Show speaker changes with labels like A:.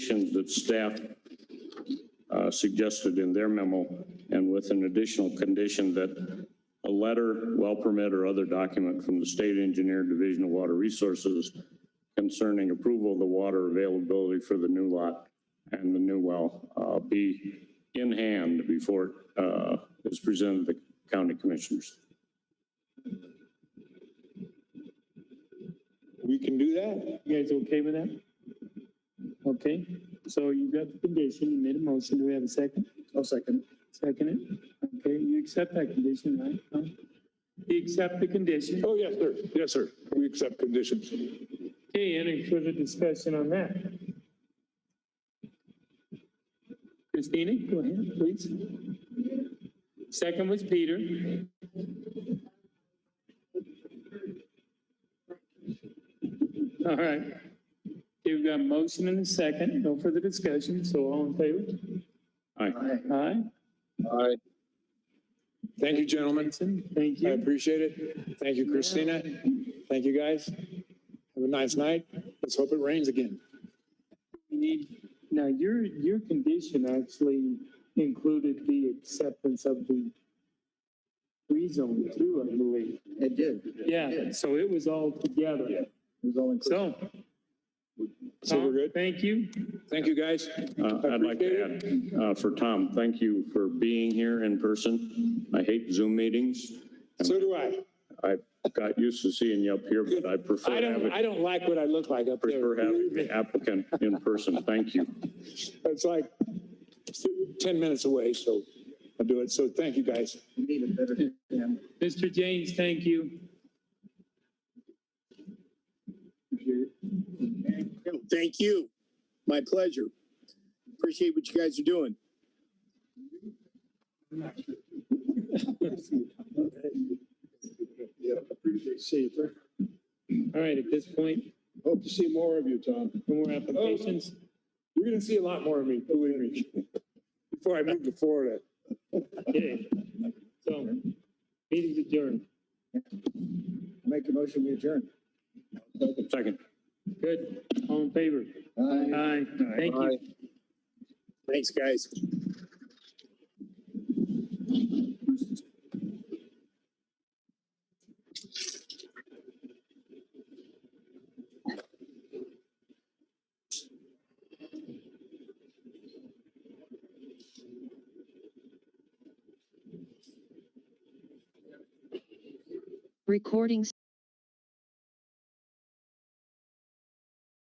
A: additions that staff uh, suggested in their memo, and with an additional condition that a letter, well permit, or other document from the State Engineer Division of Water Resources concerning approval of the water availability for the new lot and the new well uh, be in hand before it uh, is presented to the county commissioners.
B: We can do that.
C: You guys okay with that? Okay, so you got the condition, you made a motion, do we have a second?
D: I'll second.
C: Second it? Okay, you accept that condition, right? Huh? You accept the condition?
B: Oh, yes, sir. Yes, sir. We accept conditions.
C: Okay, any further discussion on that? Christina, go ahead, please. Second was Peter. All right. Okay, We've got a motion and a second, no further discussion, so all in favor?
A: Aye.
C: Aye.
B: All right. Thank you, gentlemen.
C: Thank
B: I
C: you.
B: appreciate it. Thank you, Christina. Thank you, guys. Have a nice night. Let's hope it rains again.
C: We need- Now, your, your condition actually included the acceptance of the rezone too, I believe.
D: It did. It
C: Yeah, so it was all together.
D: was all included.
C: So.
B: So we're
C: Tom,
B: good?
C: Thank you.
B: Thank you, guys.
A: Uh, I'd like to add, uh, for Tom, thank you for being here in person. I hate Zoom meetings.
B: So do I.
A: I got used to seeing you up here, but I prefer
B: I don't, I
A: having,
B: don't like what I look like up
A: prefer
B: there.
A: having the applicant in person. Thank you.
B: It's like 10 minutes away, so I'll do it. So thank you, guys.
D: We need a better camera.
C: Mr. James, thank you.
E: No, Thank you. My pleasure. Appreciate what you guys are doing.
C: All right, at this point,
B: Hope to see more of you, Tom.
C: no more applications.
B: Oh, You're going to see a lot more of me, believe me, before I move to Florida.
C: Okay. So, meeting's adjourned.
D: Make a motion, we adjourn.
A: Second.
C: Good. All in favor? Aye. Thank you.
E: Thanks, guys.
F: Recording